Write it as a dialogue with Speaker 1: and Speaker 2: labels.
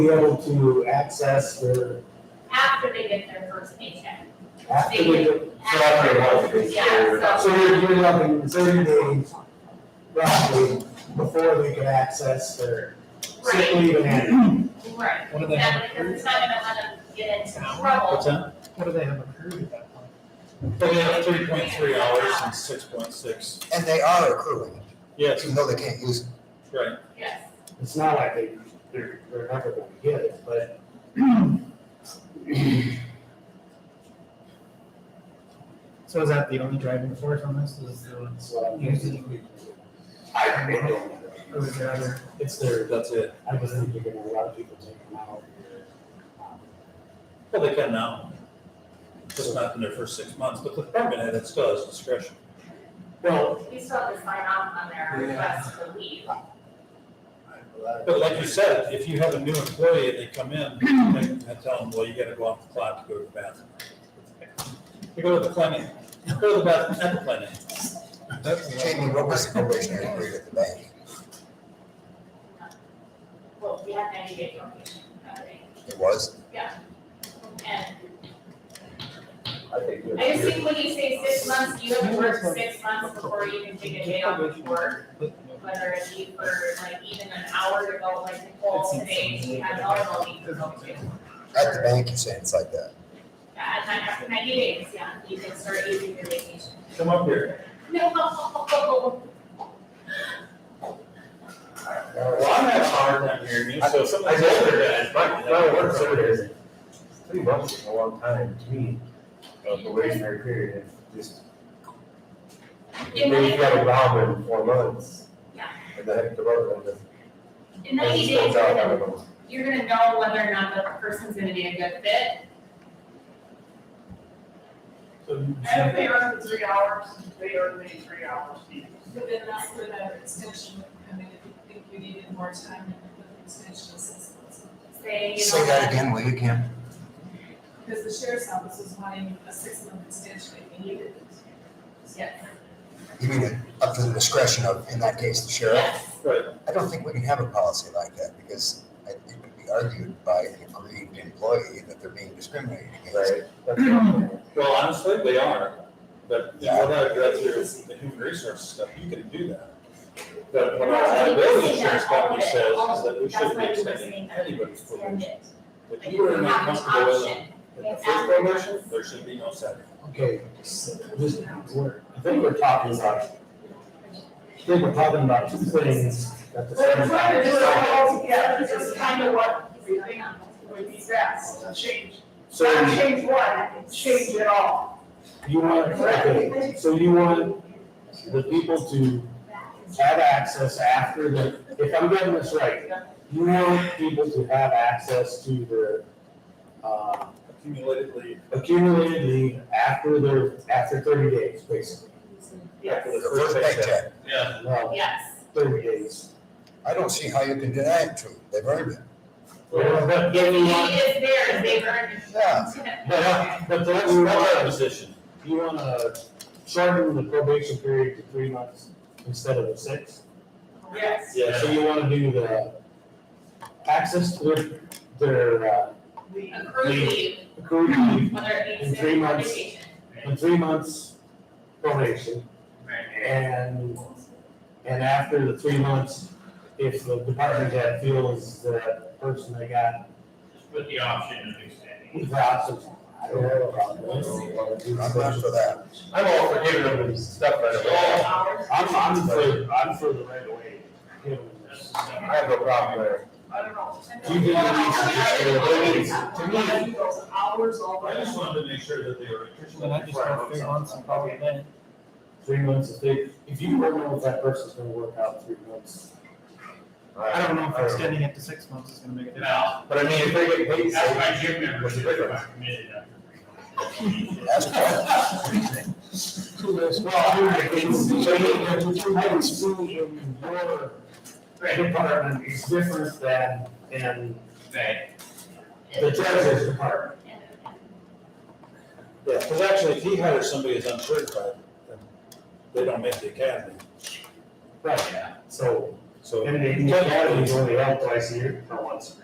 Speaker 1: be able to access their,
Speaker 2: after they get their first paycheck.
Speaker 1: after they get.
Speaker 3: So after a month, they
Speaker 2: Yeah,
Speaker 3: share.
Speaker 2: so-
Speaker 1: So you're giving up in thirty days, roughly, before they can access their sick
Speaker 2: Right.
Speaker 1: leave and annual.
Speaker 2: Right,
Speaker 4: What do they have
Speaker 2: exactly, because
Speaker 4: accrued?
Speaker 2: it's not gonna let them get into
Speaker 4: What's
Speaker 2: trouble.
Speaker 4: that? What do they have accrued at that point?
Speaker 3: They have three point three hours and six point six.
Speaker 5: And they are accruing, it,
Speaker 3: Yes,
Speaker 5: even though they can't use it.
Speaker 3: right.
Speaker 2: Yes,
Speaker 1: It's not like they, they're, they're never gonna get it, but.
Speaker 4: So is that the only driving force on this, is the
Speaker 1: it's
Speaker 4: ones,
Speaker 1: what I'm thinking. I really don't know.
Speaker 4: or is there other?
Speaker 3: It's there, that's it.
Speaker 1: I just think you're gonna, a lot of people take them out. um,
Speaker 3: Well, they can now. Just not in their first six months, but the department head, it still has discretion.
Speaker 1: Well,
Speaker 2: we still have to sign off on their request to leave.
Speaker 3: But like you said, if you have a new employee and they come in, and I tell them, well, you gotta go off the clock to go to the bathroom. You go to the clinic, go to the bathroom at the clinic.
Speaker 5: Jamie, what was the probationary period at the bank?
Speaker 2: Well, we have ninety day probation, I think.
Speaker 5: It was?
Speaker 2: and
Speaker 6: I think they're-
Speaker 2: I just think when you say six months, you have to work six months before you can take a day off of work. Whether it be for like even an hour to go, like Nicole today, she had all of them to go to.
Speaker 5: At the bank, you're saying it's like that.
Speaker 2: Yeah, and then after ninety days, yeah, you can start using your vacation.
Speaker 3: Come up here.
Speaker 2: No.
Speaker 3: Well, I'm having a hard time hearing you, so some of
Speaker 6: I
Speaker 3: these
Speaker 6: guess
Speaker 3: other
Speaker 6: they're,
Speaker 3: guys
Speaker 6: my,
Speaker 3: might.
Speaker 6: my work over here is three months is a long time to me, a probationary period, just.
Speaker 2: In
Speaker 6: Maybe you got
Speaker 2: ninety,
Speaker 6: involved in four months.
Speaker 2: Yeah.
Speaker 6: And then have to run them.
Speaker 2: in ninety
Speaker 6: It's
Speaker 2: days, you're
Speaker 6: out,
Speaker 2: gonna,
Speaker 6: I don't know.
Speaker 2: you're gonna know whether or not the person's gonna be a good fit.
Speaker 7: And if they earn the three hours, they earn the three hours.
Speaker 8: But then that's where that extension would come in, if you think you needed more time, then you put an extension of six months.
Speaker 2: Say, you
Speaker 5: Say
Speaker 2: know,
Speaker 5: that
Speaker 2: that
Speaker 5: again, will you, Kim?
Speaker 8: Because the sheriff's office was wanting a six-month extension if you needed it.
Speaker 2: Yes.
Speaker 5: You mean it up to the discretion of, in that case, the sheriff?
Speaker 2: Yes,
Speaker 5: I don't think we can have a policy like that because I- it could be argued by an aggrieved employee that they're being discriminated against.
Speaker 6: Right. That's-
Speaker 3: Well, honestly, they are, but you
Speaker 5: Yeah.
Speaker 3: know, that, that's your, the human resources stuff, you can do that. But what our liability insurance company says is that we shouldn't be extending anybody's probation. If you are not comfortable with it in the first probation, there should be no second.
Speaker 1: Okay, so this, we're, I think we're talking about, I think we're talking about two things at the
Speaker 7: They're
Speaker 1: same
Speaker 7: trying to do it
Speaker 1: time.
Speaker 7: all together, this is kind of what we think would be best, to change. Not
Speaker 1: So
Speaker 7: change one, change it all.
Speaker 1: you want, okay, so you want the people to have access after the, if I'm getting this right, you want people to have access to their, uh,
Speaker 3: Accumulated leave.
Speaker 1: accumulated leave after their, after thirty days, basically.
Speaker 3: After
Speaker 5: The first paycheck,
Speaker 3: Yeah.
Speaker 1: Well,
Speaker 2: yes.
Speaker 1: thirty days.
Speaker 5: I don't see how you can deny it to them. They've earned it.
Speaker 1: Well, But then
Speaker 2: He
Speaker 1: you want,
Speaker 2: is there, they've earned it.
Speaker 5: Yeah.
Speaker 1: but, but then
Speaker 3: That's
Speaker 1: you
Speaker 3: that's our
Speaker 1: want
Speaker 3: position.
Speaker 1: You wanna shorten the probation period to three months instead of the six?
Speaker 7: Yes,
Speaker 1: So you wanna do the access to their, their, uh,
Speaker 7: we,
Speaker 2: Accrued leave,
Speaker 1: accrued leave
Speaker 2: whether it be
Speaker 1: In three months.
Speaker 2: vacation.
Speaker 1: in three months probation. And, and after the three months, if the department head feels that person they got
Speaker 9: With the option of extending.
Speaker 1: the options, I don't have a problem with it.
Speaker 5: I'm not for that.
Speaker 6: I'm all for giving them stuff right away.
Speaker 7: hours,
Speaker 1: I'm, I'm for, I'm for the right away. Give them this.
Speaker 6: I have no problem there.
Speaker 7: I don't know.
Speaker 1: You do what you
Speaker 7: I
Speaker 1: should do.
Speaker 7: don't know, those hours all
Speaker 3: I
Speaker 7: the
Speaker 3: just wanted to make sure that they were.
Speaker 4: Well, I just gotta figure on some problem then.
Speaker 1: Three months, if they, if you don't know if that person's gonna work out three months,
Speaker 4: I don't know if extending it to six months is gonna make a difference.
Speaker 6: But I mean, if they get paid,
Speaker 9: That's
Speaker 6: so
Speaker 9: why gym members are committed after three months.
Speaker 5: That's why.
Speaker 1: Well, I mean, it's, I would assume in your department is different than, than
Speaker 9: Right.
Speaker 1: the judge's department.
Speaker 3: Yeah, because actually, if he hires somebody as uncertified, then they don't make the academy,
Speaker 1: Right, so,
Speaker 3: so.
Speaker 1: and the academy is only held twice a year, or once a year.